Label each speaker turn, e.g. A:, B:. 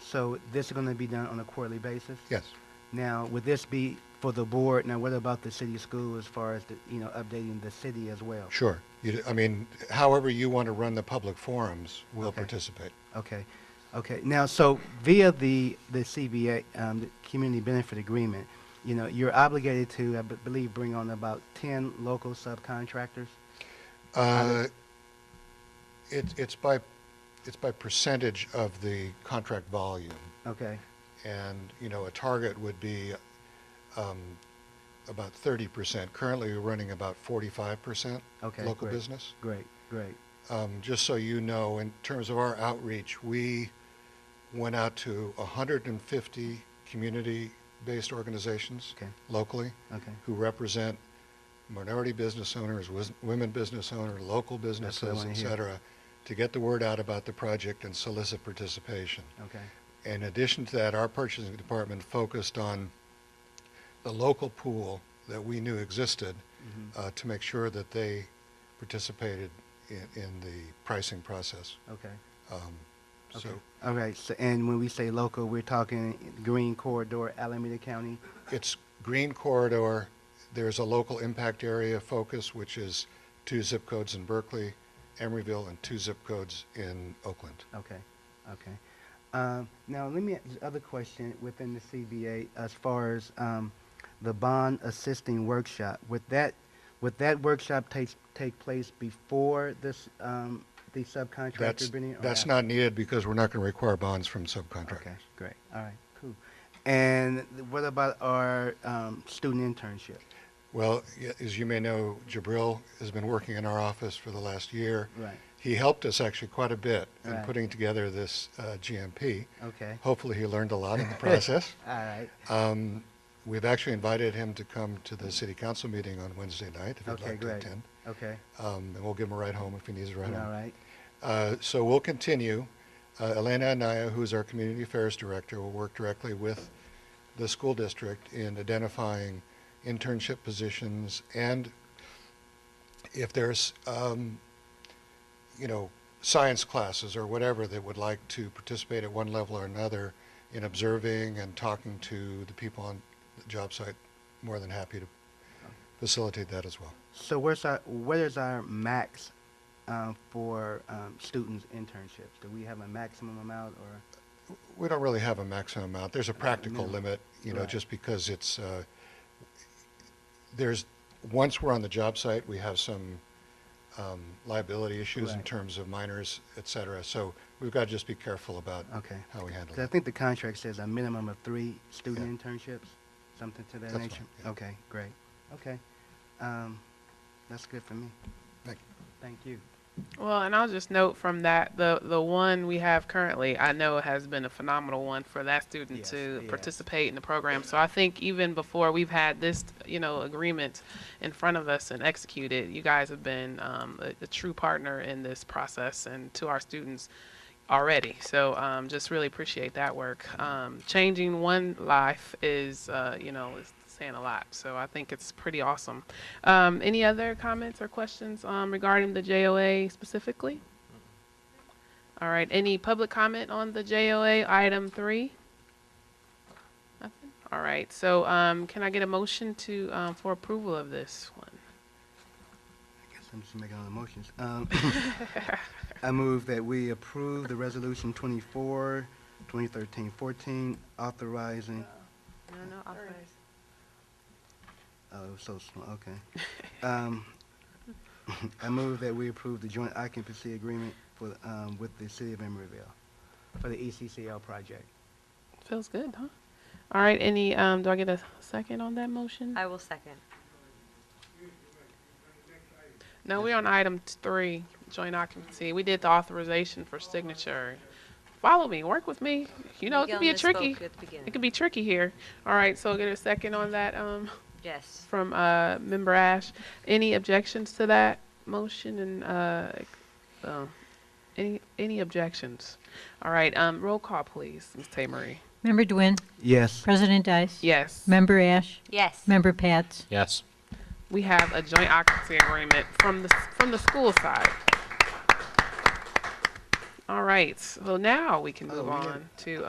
A: So this is going to be done on a quarterly basis?
B: Yes.
A: Now, would this be for the board? Now, what about the city school as far as, the you know, updating the city as well?
B: Sure. You, I mean, however you want to run the public forums, we'll
A: Okay.
B: participate.
A: Okay, okay. Now, so via the, the CBA, um, the Community Benefit Agreement, you know, you're obligated to, I b- believe, bring on about ten local subcontractors?
B: Uh, It, it's by, it's by percentage of the contract volume.
A: Okay,
B: And, you know, a target would be um, about 30%. Currently, we're running about 45%
A: Okay,
B: local
A: great.
B: business.
A: great, great.
B: um, just so you know, in terms of our outreach, we went out to 150 community-based organizations
A: Okay.
B: locally
A: Okay,
B: who represent minority business owners, wis- women business owners, local businesses,
A: wanna
B: et
A: hear.
B: cetera, to get the word out about the project and solicit participation.
A: okay,
B: In addition to that, our purchasing department focused on the local pool that we knew existed
A: Mhm.
B: uh, to make sure that they participated in, in the pricing process.
A: okay.
B: Um,
A: Okay.
B: So
A: All right, so, and when we say local, we're talking Green Corridor, Alameda County?
B: it's green corridor. There's a local impact area focus, which is two zip codes in Berkeley, Emeryville, and two zip codes in Oakland.
A: Okay, okay. Um, Now, let me, the other question within the CBA, as far as um, the bond assisting workshop, would that, would that workshop take, take place before this, um, the
B: That's,
A: subcontractor bidding? or
B: that's
A: after?
B: not needed because we're not going to require bonds from subcontractors.
A: Okay, great, all right, cool. And th- what about our um, student internship?
B: Well, y- as you may know, Jabril has been working in our office for the last year.
A: Right,
B: He helped us actually quite a bit in
A: Right.
B: putting together this uh, GMP.
A: okay,
B: Hopefully, he learned a lot in the process.
A: all right,
B: Um, We've actually invited him to come to the city council meeting on Wednesday night if he'd
A: okay,
B: like to
A: great,
B: attend.
A: okay,
B: Um, And we'll give him a ride home if he needs a
A: all
B: ride home.
A: right,
B: Uh, So we'll continue. Uh, Elena Anaya, who is our community affairs director, will work directly with the school district in identifying internship positions and if there's, um, you know, science classes or whatever that would like to participate at one level or another in observing and talking to the people on the job site, more than happy to facilitate that as well.
A: So where's our, what is our max um, for um, students internships? Do we have a maximum amount or?
B: We don't really have a maximum amount. There's a practical
A: minimum.
B: limit, you know,
A: Right.
B: just because it's, uh, there's, once we're on the job site, we have some um, liability issues in
A: Right.
B: terms of minors, et cetera. So we've got to just be careful about
A: Okay.
B: how we handle
A: 'Cause I
B: that.
A: think the contract says a minimum of three student
B: Yeah.
A: internships, something to that
B: That's
A: nature.
B: fine, yeah.
A: Okay, great. Okay, um, that's good for me.
B: Thank you.
A: Thank you.
C: Well, and I'll just note from that the the one we have currently, I know has been a phenomenal one for that student
A: Yes,
C: to
A: yes.
C: participate in the program. So I think even before we've had this, you know, agreement in front of us and executed, you guys have been um, a, a true partner in this process and to our students already. So um, just really appreciate that work. Um, changing one life is, uh, you know, is saying a lot. So I think it's pretty awesome. Um, any other comments or questions um, regarding the JOA specifically? All right. Any public comment on the JOA item three? Nothing. All right. So um, can I get a motion to um, for approval of this one?
A: I guess I'm just making all the motions. Um, I move that we approve the resolution 24, 2013-14, authorizing
C: No, no.
A: Oh, it was so small, okay. Um, I move that we approve the joint occupancy agreement for, um, with the city of Emeryville for the E ECCL project.
C: Feels good, huh? All right. Any? Um, do I get a second on that motion?
D: I will second.
C: No, we're on item t- three, joint occupancy. We did the authorization for signature. Follow me, work with me. You know, it could be a
D: Miguel misspoke
C: tricky,
D: At the beginning.
C: it could be tricky here. All right, so get a second on that, um,
D: Yes.
C: from, uh, member Ash. Any objections to that motion and, uh, um, any, any objections? All right, um, roll call, please, Ms. Tamery.
E: Member Dwin,
A: Yes.
E: President Dice.
C: Yes.
E: Member Ash,
D: Yes.
E: Member Pats.
F: Yes.
C: we have a joint occupancy agreement from the, from the school side. All right, well, now we can move
A: we didn't-
C: on to